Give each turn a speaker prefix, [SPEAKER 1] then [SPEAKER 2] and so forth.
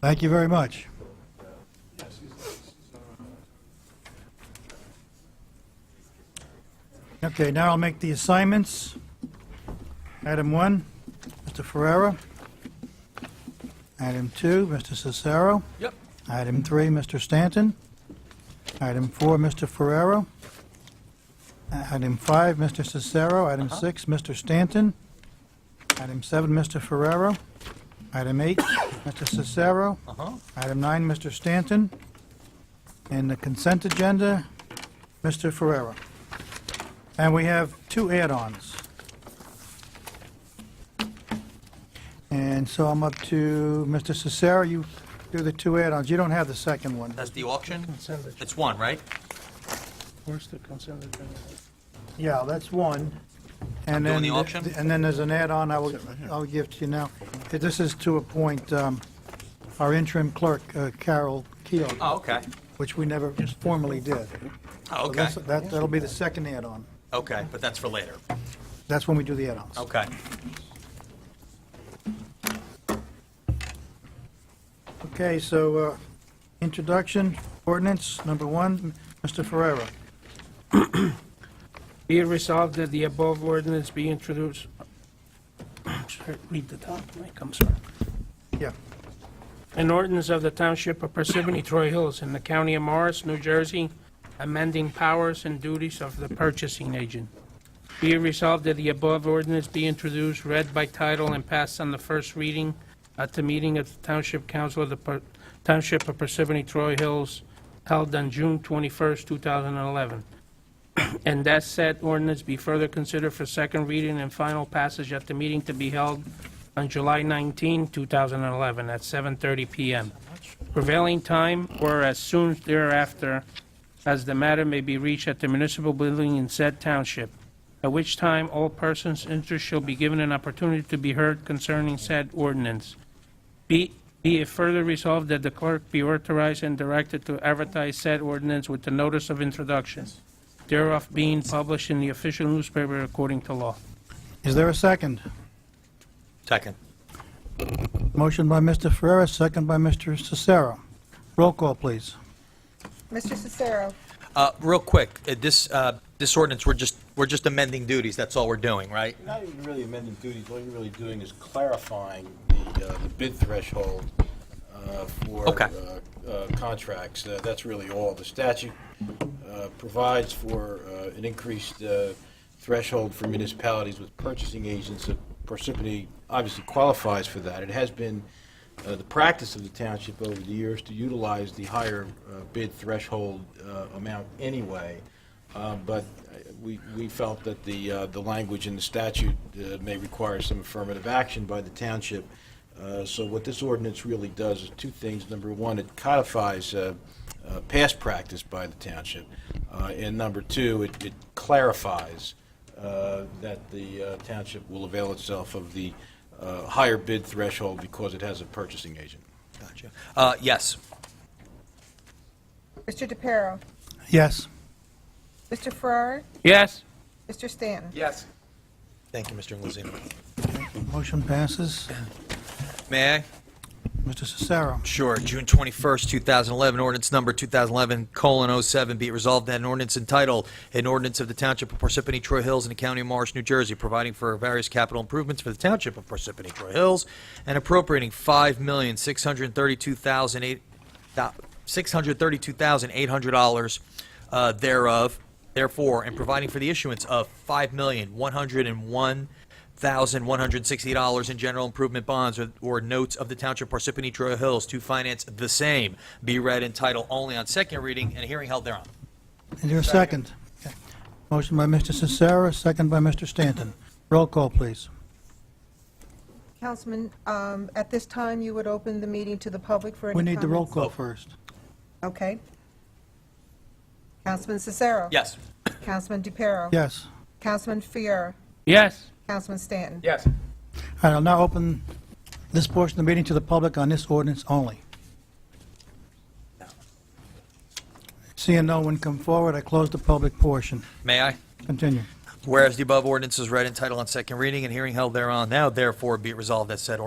[SPEAKER 1] Thank you very much. Okay, now I'll make the assignments. Item one, Mr. Ferrera. Item two, Mr. Cicero.
[SPEAKER 2] Yep.
[SPEAKER 1] Item three, Mr. Stanton. Item four, Mr. Ferrero. Item five, Mr. Cicero. Item six, Mr. Stanton. Item seven, Mr. Ferrero. Item eight, Mr. Cicero.
[SPEAKER 2] Uh-huh.
[SPEAKER 1] Item nine, Mr. Stanton. And the consent agenda, Mr. Ferrero. And we have two add-ons. And so I'm up to Mr. Cicero, you do the two add-ons. You don't have the second one.
[SPEAKER 2] That's the auction?
[SPEAKER 3] Consent agenda.
[SPEAKER 2] It's one, right?
[SPEAKER 3] Where's the consent agenda?
[SPEAKER 1] Yeah, that's one.
[SPEAKER 2] Doing
[SPEAKER 1] And then
[SPEAKER 2] the auction?
[SPEAKER 1] And then there's an add-on I will, I'll give to you now. This is to appoint um, our interim clerk, uh, Carol Keel,
[SPEAKER 2] Oh, okay.
[SPEAKER 1] which we never formally did.
[SPEAKER 2] Oh,
[SPEAKER 1] So
[SPEAKER 2] okay.
[SPEAKER 1] that's- that- That'll be the second add-on.
[SPEAKER 2] Okay, but that's for later.
[SPEAKER 1] That's when we do the add-ons.
[SPEAKER 2] Okay.
[SPEAKER 1] Okay, so uh, introduction, ordinance, number one, Mr. Ferrera.
[SPEAKER 3] Be it resolved that the above ordinance be introduced. Sorry, Read the top, Mike, I'm sorry.
[SPEAKER 1] Yeah.
[SPEAKER 3] An ordinance of the Township of Parsippany Troy Hills in the County of Morris, New Jersey, amending powers and duties of the purchasing agent. Be it resolved that the above ordinance be introduced, read by title, and passed on the first reading at the meeting of the Township Council of the Par- Township of Parsippany Troy Hills held on June 21st, 2011. And that said ordinance be further considered for second reading and final passage at the meeting to be held on July 19, 2011, at 7:30 PM. Prevailing time or as soon thereafter as the matter may be reached at the municipal building in said township, at which time all persons interested shall be given an opportunity to be heard concerning said ordinance. Be, be it further resolved that the clerk be authorized and directed to advertise said ordinance with the notice of introduction, thereof being published in the official newspaper according to law.
[SPEAKER 1] Is there a second?
[SPEAKER 2] Second.
[SPEAKER 1] Motion by Mr. Ferrera, second by Mr. Cicero. Roll call, please.
[SPEAKER 4] Mr. Cicero,
[SPEAKER 2] Uh, real quick, uh, this, uh, this ordinance, we're just, we're just amending duties, that's all we're doing, right?
[SPEAKER 5] Not even really amending duties, all you're really doing is clarifying the uh, the bid threshold uh, for
[SPEAKER 2] Okay.
[SPEAKER 5] uh, uh, contracts. Uh, That's really all. The statute uh, provides for uh, an increased uh, threshold for municipalities with purchasing agents. Uh, Parsippany obviously qualifies for that. It has been uh, the practice of the township over the years to utilize the higher uh, bid threshold uh, amount anyway. Uh, But uh, we we felt that the, uh, the language in the statute uh, may require some affirmative action by the township. Uh, So what this ordinance really does is two things. Number one, it codifies uh, uh, past practice by the township. Uh, And number two, it it clarifies uh, that the uh, township will avail itself of the uh, higher bid threshold because it has a purchasing agent.
[SPEAKER 2] Gotcha. Uh, yes.
[SPEAKER 4] Mr. DePiero,
[SPEAKER 1] Yes.
[SPEAKER 4] Mr. Farrar,
[SPEAKER 3] Yes?
[SPEAKER 4] Mr. Stanton.
[SPEAKER 2] Yes. Thank you, Mr. Inglesino.
[SPEAKER 1] Motion passes.
[SPEAKER 2] May I?
[SPEAKER 1] Mr. Cicero.
[SPEAKER 2] Sure. June 21st, 2011, ordinance number 2011:07, oh, be it resolved that an ordinance entitled, an ordinance of the Township of Parsippany Troy Hills in the County of Morris, New Jersey, providing for various capital improvements for the Township of Parsippany Troy Hills and appropriating $5,632,800 uh, thereof, therefore, and providing for the issuance of $5,101,000 $1,160 in general improvement bonds or- or notes of the Township Parsippany Troy Hills to finance the same. Be read in title only on second reading and a hearing held thereon.
[SPEAKER 1] Is there a second? Okay. Motion by Mr. Cicero, second by Mr. Stanton. Roll call, please.
[SPEAKER 4] Councilman, um, at this time, you would open the meeting to the public for any
[SPEAKER 1] We need the roll
[SPEAKER 4] comments?
[SPEAKER 1] call first.
[SPEAKER 4] Okay. Councilman Cicero.
[SPEAKER 2] Yes.
[SPEAKER 4] Councilman DePiero.
[SPEAKER 1] Yes.
[SPEAKER 4] Councilman Farrar,
[SPEAKER 3] Yes?
[SPEAKER 4] Councilman Stanton.
[SPEAKER 3] Yes.
[SPEAKER 1] All right, I'll now open this portion of the meeting to the public on this ordinance only. Seeing no one come forward, I close the public portion.
[SPEAKER 2] May I?
[SPEAKER 1] Continue.
[SPEAKER 2] Whereas the above ordinance is read in title on second reading and hearing held thereon, now therefore be it resolved that said ordinance